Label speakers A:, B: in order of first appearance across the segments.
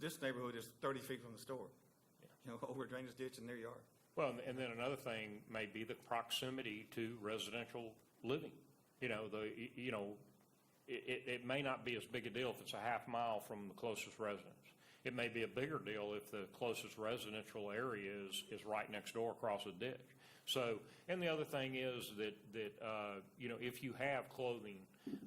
A: This neighborhood is thirty feet from the store, you know, over a drainage ditch in their yard.
B: Well, and- and then another thing may be the proximity to residential living. You know, the, y- you know, it, it, it may not be as big a deal if it's a half mile from the closest residence. It may be a bigger deal if the closest residential area is, is right next door across a ditch. So, and the other thing is that, that, uh, you know, if you have clothing,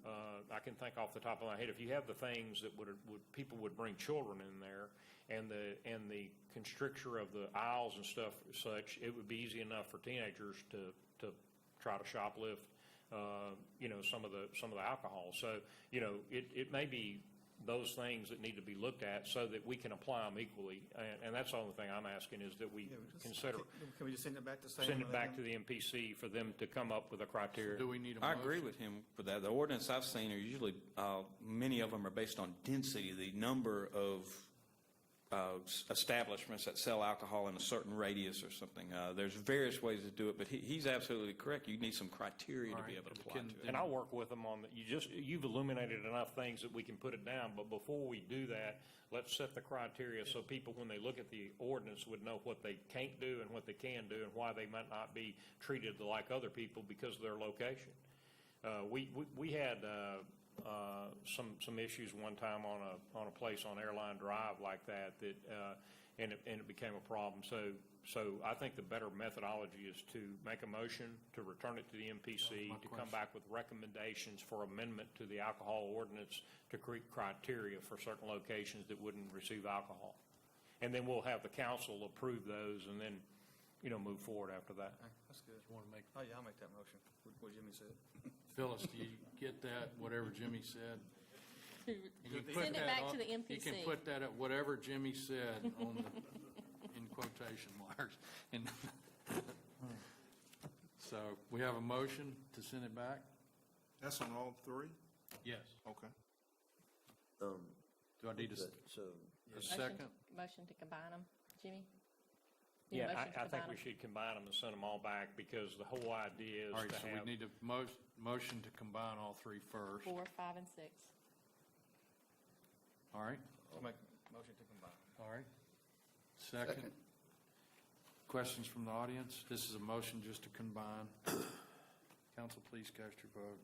B: uh, I can think off the top of my head, if you have the things that would, would, people would bring children in there, and the, and the constricture of the aisles and stuff such, it would be easy enough for teenagers to, to try to shoplift, uh, you know, some of the, some of the alcohol. So, you know, it, it may be those things that need to be looked at so that we can apply them equally. And, and that's the only thing I'm asking is that we
A: You know, just-
B: consider,
A: Can can we just send it back to same?
B: send it back to the MPC for them to come up with a criteria.
C: Do we need a
D: I
C: motion?
D: agree with him for that. The ordinance I've seen are usually, uh, many of them are based on density, the number of uh, s- establishments that sell alcohol in a certain radius or something. Uh, There's various ways to do it, but he- he's absolutely correct. You need some criteria to be able to apply
C: Can-
D: to it.
B: And I'll work with them on that. You just, you've illuminated enough things that we can put it down, but before we do that, let's set the criteria so people, when they look at the ordinance, would know what they can't do and what they can do and why they might not be treated like other people because of their location. Uh, we, we, we had, uh, uh, some, some issues one time on a, on a place on Airline Drive like that, that, uh, and it, and it became a problem. So, so I think the better methodology is to make a motion, to return it to the MPC, to come back with recommendations for amendment to the alcohol ordinance to create criteria for certain locations that wouldn't receive alcohol. And then we'll have the council approve those and then, you know, move forward after that.
A: Okay, That's good.
C: You want to make,
A: Oh, yeah, I'll make that motion, what- what Jimmy said.
C: Phyllis, do you get that, whatever Jimmy said? You can put
E: Send it
C: that
E: back
C: on-
E: to the
C: You can
E: MPC.
C: put that at whatever Jimmy said on the, in quotation marks. And So we have a motion to send it back?
F: That's on all three?
C: Yes.
F: Okay.
G: Um,
C: Do I need a s-
G: so,
C: a
E: Motion-
C: second?
E: Motion to combine them, Jimmy? Need a
B: Yeah,
E: motion to
B: I, I think
E: combine
B: we
E: 'em?
B: should combine them and send them all back because the whole idea
C: All
B: is
C: right,
B: to
C: so we
B: have,
C: need a mo- motion to combine all three first.
E: Four, five, and six.
C: All right,
A: I'll make a motion to combine.
C: all right. Second. Questions from the audience? This is a motion just to combine. Council, please cast your vote.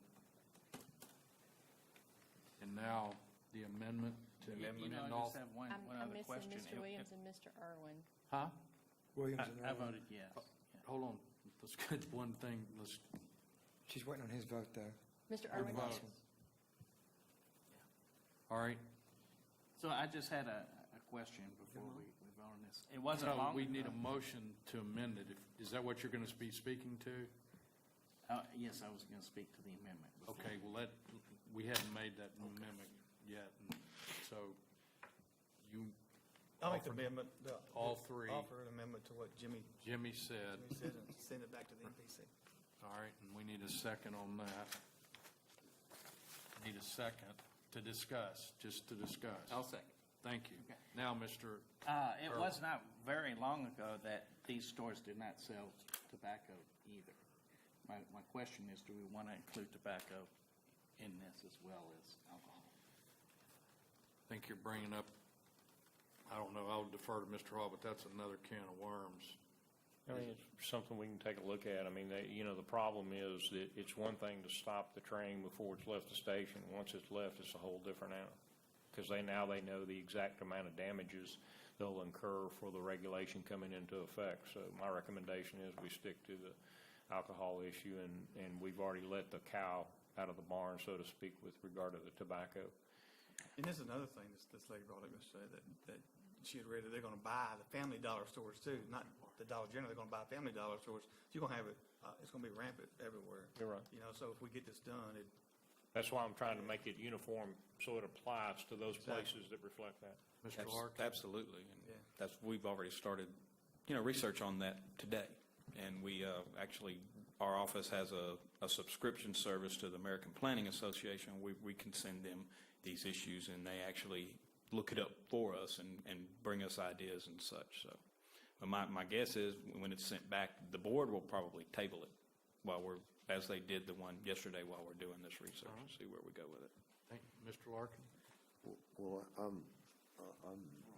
C: And now, the amendment to.
H: You know,
C: amend
H: I
C: all-
H: just have one,
E: I'm,
H: one
E: I'm
H: other
E: missing
H: question.
E: Mr. Williams and Mr. Irwin.
C: Huh?
H: I I voted yes.
C: Hold on, let's get one thing, let's,
I: She's waiting on his vote, though.
E: Mr. Irwin,
C: vote. all right.
H: So I just had a, a question before we, we vote on this. It wasn't
C: No,
H: long.
C: we need a motion to amend it. If- Is that what you're going to be speaking to?
H: Uh, yes, I was gonna speak to the amendment. before.
C: Okay, well, that, we hadn't made that amendment yet, and so you,
A: I'll make the amendment. the-
C: All three.
A: Offer an amendment to what Jimmy,
C: Jimmy said,
A: Jimmy said and send it back to the MPC.
C: all right, and we need a second on that. Need a second to discuss, just to discuss.
H: I'll second.
C: Thank you.
H: Okay.
C: Now, Mr.,
H: Uh, it was not very long ago that these stores did not sell tobacco either. My, my question is, do we wanna include tobacco in this as well as alcohol?
C: I think you're bringing up, I don't know, I'll defer to Mr. Hall, but that's another can of worms.
B: I mean, it's something we can take a look at. I mean, they, you know, the problem is that it's one thing to stop the train before it's left the station. Once it's left, it's a whole different animal. Because they, now they know the exact amount of damages they'll incur for the regulation coming into effect. So my recommendation is we stick to the alcohol issue and, and we've already let the cow out of the barn, so to speak, with regard to the tobacco.
A: And this is another thing this, this lady brought up yesterday, that, that she had read that they're gonna buy the Family Dollar stores too, not the Dollar General, they're gonna buy Family Dollar stores. So You're gonna have it, uh, it's gonna be rampant everywhere.
B: You're right.
A: You know, so if we get this done, it,
B: That's why I'm trying to make it uniform, so it applies to those places that reflect that.
C: Mr.
D: Abs-
C: Clark?
D: Absolutely. and
A: Yeah.
D: That's, we've already started, you know, research on that today. And we uh, actually, our office has a, a subscription service to the American Planning Association. We, we can send them these issues and they actually look it up for us and, and bring us ideas and such, so. But my, my guess is when it's sent back, the board will probably table it while we're, as they did the one yesterday while we're doing this research and see where we go with it.
C: Thank- Mr. Larkin?
G: well, I'm, I'm